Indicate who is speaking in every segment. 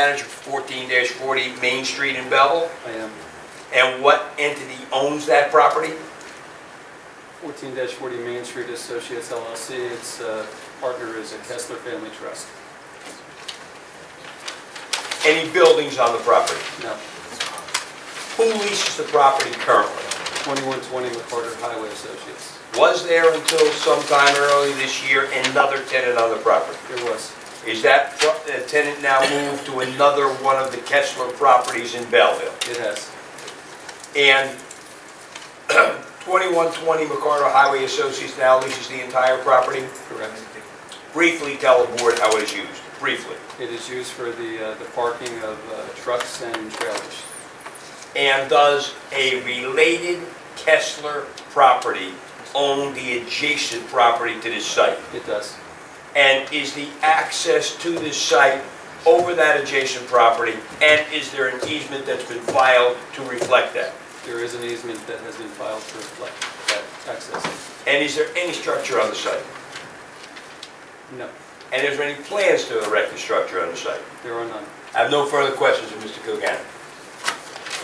Speaker 1: manager for 14-40 Main Street in Belleville?
Speaker 2: I am.
Speaker 1: And what entity owns that property?
Speaker 2: Fourteen forty Main Street Associates LLC. Its uh, partner is a Kessler Family Trust.
Speaker 1: Any buildings on the property?
Speaker 2: No,
Speaker 1: Who leases the property currently?
Speaker 2: twenty-one twenty McCarter Highway Associates.
Speaker 1: Was there until sometime early this year another tenant on the property?
Speaker 2: There was.
Speaker 1: Is that pro- uh, tenant now moved to another one of the Kessler properties in Belleville?
Speaker 2: It has.
Speaker 1: And 2120 McCarter Highway Associates now leases the entire property?
Speaker 2: Correct.
Speaker 1: Briefly tell the board how it is used, briefly.
Speaker 2: It is used for the, uh, the parking of uh, trucks and trailers.
Speaker 1: And does a related Kessler property own the adjacent property to this site?
Speaker 2: It does.
Speaker 1: And is the access to this site over that adjacent property? And is there an easement that's been filed to reflect that?
Speaker 2: There is an easement that has been filed to reflect that access.
Speaker 1: And is there any structure on the site?
Speaker 2: No,
Speaker 1: And is there any plans to erect a structure on the site?
Speaker 2: there are none.
Speaker 1: I have no further questions of Mr. Coogan.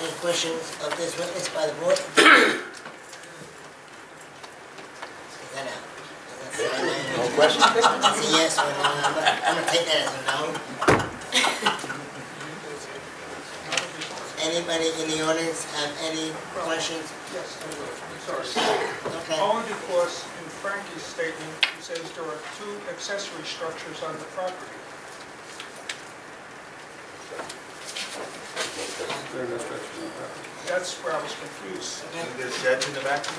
Speaker 3: Any questions of this witness by the board? Take that out. No questions? That's a yes or no, I'm gonna- I'm gonna take that as a no. Anybody in the audience have any questions?
Speaker 4: Yes, I will. sorry.
Speaker 3: Okay,
Speaker 4: Only because in Frankie's statement, he says there are two accessory structures on the property.
Speaker 2: There are no structures on the property.
Speaker 4: That's where I was confused.
Speaker 5: There's sheds in the back?
Speaker 2: Those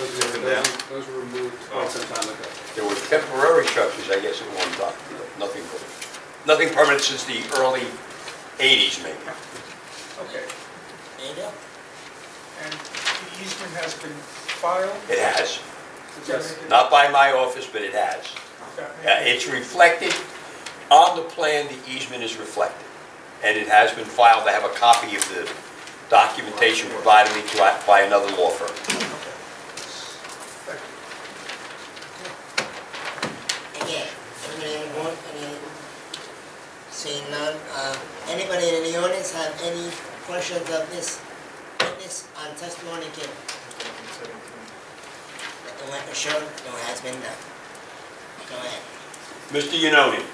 Speaker 2: were- Those were- those were removed quite some time ago.
Speaker 1: There were temporary structures, I guess, at one time, nothing, nothing permanent since the early 80s, maybe.
Speaker 4: Okay,
Speaker 3: there you go.
Speaker 4: and the easement has been filed?
Speaker 1: It has,
Speaker 4: Does that
Speaker 2: Yes.
Speaker 4: make it-
Speaker 1: not by my office, but it has.
Speaker 4: that make
Speaker 1: Yeah,
Speaker 4: it-
Speaker 1: It's reflected, on the plan, the easement is reflected, and it has been filed, I have a copy of the documentation provided me to- by another law firm.
Speaker 4: okay. Thank you.
Speaker 3: Again, anybody on the board, any, seeing none, uh, anybody in the audience have any questions of this witness on testimony given? Let the record show, no has been done. Go ahead.
Speaker 1: Mr. Yanoni?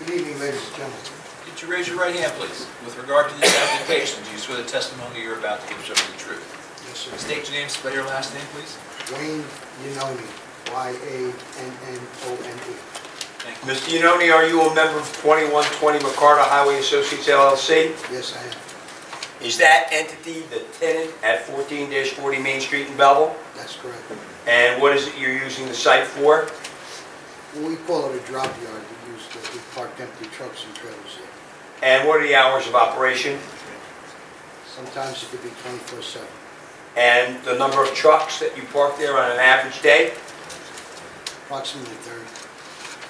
Speaker 6: Good evening, ladies and gentlemen.
Speaker 7: Could you raise your right hand, please? With regard to this application, do you swear the testimony you're about to give shows the truth?
Speaker 6: Yes,
Speaker 7: State your name, spell your last name, please.
Speaker 6: Wayne Yanoni, Y-A-N-N-O-N-E.
Speaker 7: Thank you.
Speaker 1: Mr. Yanoni, are you a member of 2120 McCarter Highway Associates LLC?
Speaker 6: Yes, I am.
Speaker 1: Is that entity the tenant at 14-40 Main Street in Belleville?
Speaker 6: That's correct.
Speaker 1: And what is it you're using the site for?
Speaker 6: Well, We call it a drop yard. We use, the- we park empty trucks and trailers there.
Speaker 1: And what are the hours of operation?
Speaker 6: Sometimes it could be 24/7.
Speaker 1: And the number of trucks that you park there on an average day?
Speaker 6: Approximately 30.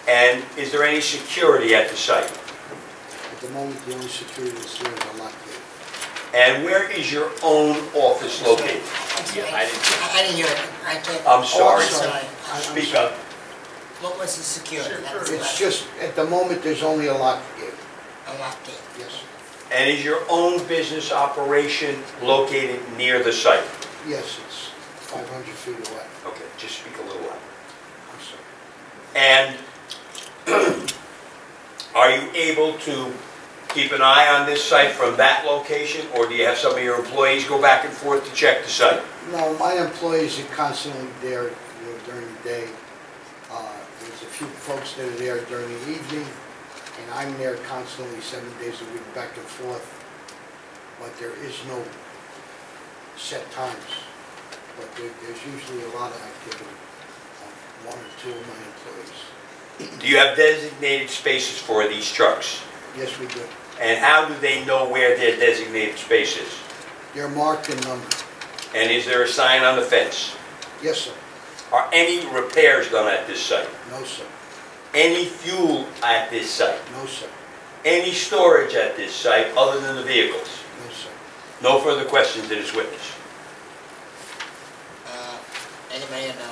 Speaker 1: And is there any security at the site?
Speaker 6: At the moment, the only security that's there is a lock gate.
Speaker 1: And where is your own office located?
Speaker 7: Yeah, I didn't hear.
Speaker 3: I didn't hear it, I can't.
Speaker 6: Uh,
Speaker 1: I'm sorry.
Speaker 3: Oh, Sorry.
Speaker 6: I- I'm
Speaker 1: Speak
Speaker 6: sorry.
Speaker 1: up.
Speaker 3: What was the security? That was
Speaker 6: It's
Speaker 3: last-
Speaker 6: just, at the moment, there's only a lock gate.
Speaker 3: A lock gate.
Speaker 6: Yes,
Speaker 1: And is your own business operation located near the site?
Speaker 6: yes, it's 500 feet away.
Speaker 1: Okay, just speak a little louder.
Speaker 6: I'm sorry.
Speaker 1: And are you able to keep an eye on this site from that location? Or do you have some of your employees go back and forth to check the site?
Speaker 6: No, my employees are constantly there you know, during the day. Uh, There's a few folks that are there during the evening, and I'm there constantly, seven days a week, back and forth. But there is no set times. But there- there's usually a lot of activity on one or two of my employees.
Speaker 1: Do you have designated spaces for these trucks?
Speaker 6: Yes, we do.
Speaker 1: And how do they know where their designated space is?
Speaker 6: They're marked and numbered.
Speaker 1: And is there a sign on the fence?
Speaker 6: Yes, sir.
Speaker 1: Are any repairs done at this site?
Speaker 6: No, sir.
Speaker 1: Any fuel at this site?
Speaker 6: No, sir.
Speaker 1: Any storage at this site other than the vehicles?
Speaker 6: No, sir.
Speaker 1: No further questions to this witness.
Speaker 3: Uh, Anybody plan, uh,